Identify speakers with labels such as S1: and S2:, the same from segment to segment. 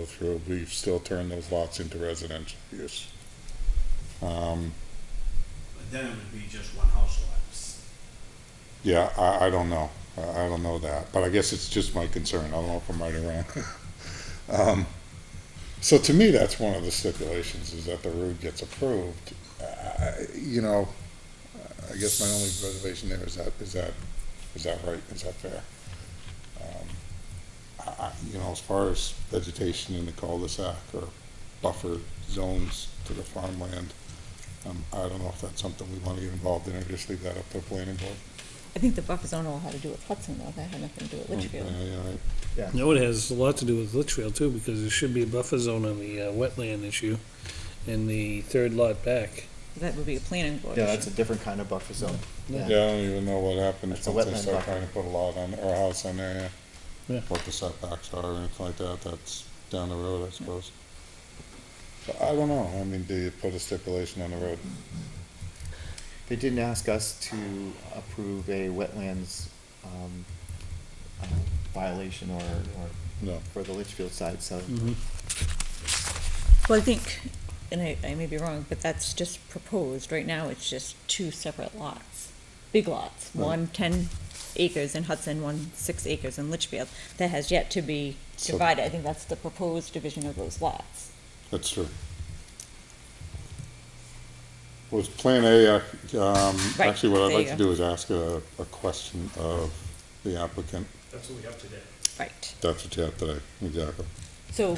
S1: go through, we've still turned those lots into residential use. Um,
S2: But then it would be just one house lot.
S1: yeah, I, I don't know, I, I don't know that, but I guess it's just my concern, I don't know if I'm right or wrong. Um, so to me, that's one of the stipulations, is that the road gets approved, uh, you know, I guess my only reservation there is that, is that, is that right, is that fair? Um, I, I- you know, as far as vegetation in the cul-de-sac or buffer zones to the farmland, um, I don't know if that's something we want to get involved in, or just leave that up to the planning board.
S3: I think the buffer zone will have to do with Hudson, though, that had nothing to do with Litchfield.
S1: Yeah, yeah, right.
S4: No, it has a lot to do with Litchfield too, because there should be a buffer zone on the uh, wetland issue in the third lot back.
S3: That would be a planning board
S5: Yeah, that's
S3: issue.
S5: a different kind of buffer zone.
S4: Yeah.
S1: Yeah, I don't even know what happens
S5: That's a
S1: once they
S5: wetland
S1: start
S5: buffer.
S1: trying to put a lot on, or a house on there, yeah.
S4: Yeah.
S1: What the setbacks are or anything like that, that's down the road, I suppose. But I don't know, I mean, do you put a stipulation on the road?
S5: They didn't ask us to approve a wetlands, um, um, violation or, or
S1: No.
S5: for the Litchfield side, so.
S4: Mm-hmm.
S3: Well, I think, and I, I may be wrong, but that's just proposed. Right now, it's just two separate lots, big lots.
S1: Right.
S3: One ten acres in Hudson, one six acres in Litchfield. That has yet to be
S1: So-
S3: divided. I think that's the proposed division of those lots.
S1: That's true. Was Plan A, ac- um,
S3: Right,
S1: actually, what I'd
S3: there
S1: like
S3: you
S1: to
S3: go.
S1: do is ask a, a question of the applicant,
S2: That's what we have today.
S3: Right.
S1: That's what you have today, exactly.
S3: So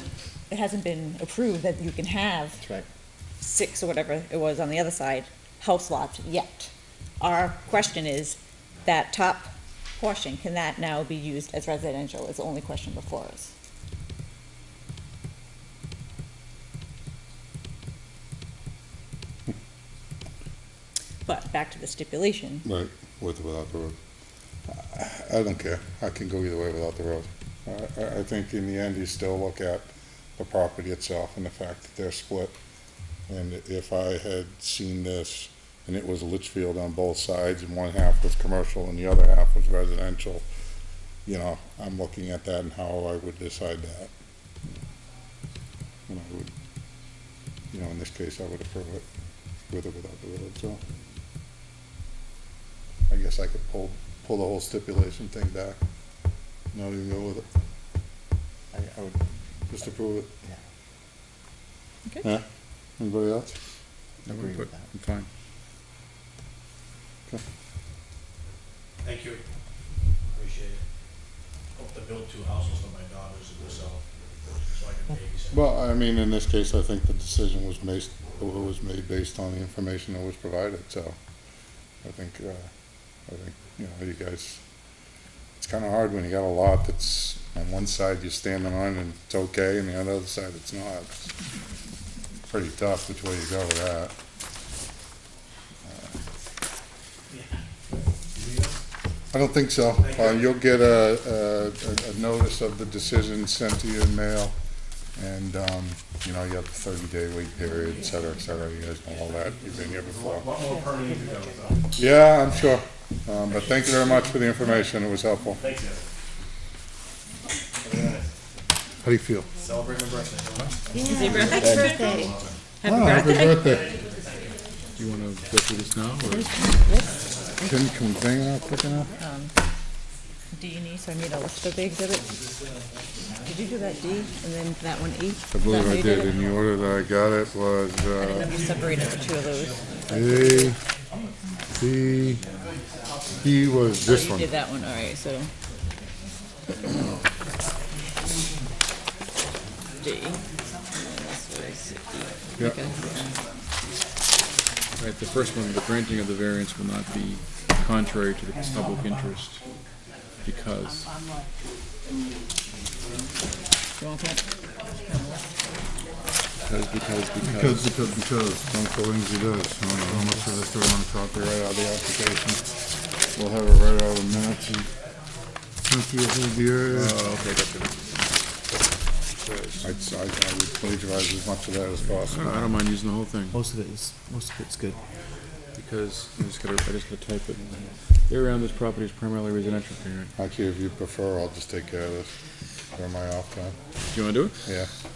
S3: it hasn't been approved that you can have
S5: That's right.
S3: six or whatever it was on the other side, house lots yet. Our question is, that top portion, can that now be used as residential, is the only question before us.
S5: Hmm.
S3: But back to the stipulation,
S1: Right, with or without the road. I I don't care, I can go either way without the road. I- I, I think in the end, you still look at the property itself and the fact that they're split. And if I had seen this, and it was Litchfield on both sides, and one half was commercial and the other half was residential, you know, I'm looking at that and how I would decide that. And I would, you know, in this case, I would approve it with or without the road, so. I guess I could pull, pull the whole stipulation thing back, not even go with it,
S5: I, I would,
S1: just approve it.
S5: yeah,
S1: Yeah, anybody else?
S5: Agree with that.
S1: I'm fine.
S2: Thank you. Appreciate it. Hope to build two houses for my daughters and myself, so I can babysit.
S1: Well, I mean, in this case, I think the decision was based, was made based on the information that was provided, so I think, uh, I think, you know, you guys, it's kinda hard when you got a lot that's on one side you're standing on and it's okay, and the other side it's not. It's Pretty tough which way you go with that. I don't think so.
S2: Thank you.
S1: Uh, You'll get a, a- a- a notice of the decision sent to you in mail, and, um, you know, you have the thirty-day wait period, et cetera, et cetera. You guys know all that, you've been here before.
S2: Lot more permitting to go, though.
S1: Yeah, I'm sure. Um, But thank you very much for the information, it was helpful.
S2: Thanks, Ed.
S1: How do you feel?
S2: Celebrate my birthday. huh?
S1: Ah, happy birthday. Do you want to go through this now, or? Can, can we bang it out quick enough?
S3: D and E, so I need a list of the exhibits. Did you do that D and then that one E?
S1: I believe I did, in the order that I got it was,
S3: I didn't
S1: uh,
S3: know if you separated the two of those.
S1: A, B, E was this
S3: Oh, You
S1: one.
S3: did that one, all right, so. D.
S1: Yeah.
S6: Right, the first one, the granting of the variance will not be contrary to the public interest because, because, because, because.
S1: Because, because, because, Uncle Lindsay does, I don't know how much of this do I wanna copy right out of the application? We'll have it right out of the minutes and. Cynthia will be here.
S6: Oh, okay, gotcha.
S1: I'd, Uh, I, I would plagiarize as much of that as
S6: I don't,
S1: possible.
S6: I don't mind using the whole thing
S5: most of it is, most of it's good.
S6: because I just gotta, I just gotta type it. Area around this property is primarily residential, okay, right?
S1: Actually, if you prefer, I'll just take care of this during my off time,
S6: Do you wanna do it?
S1: yeah.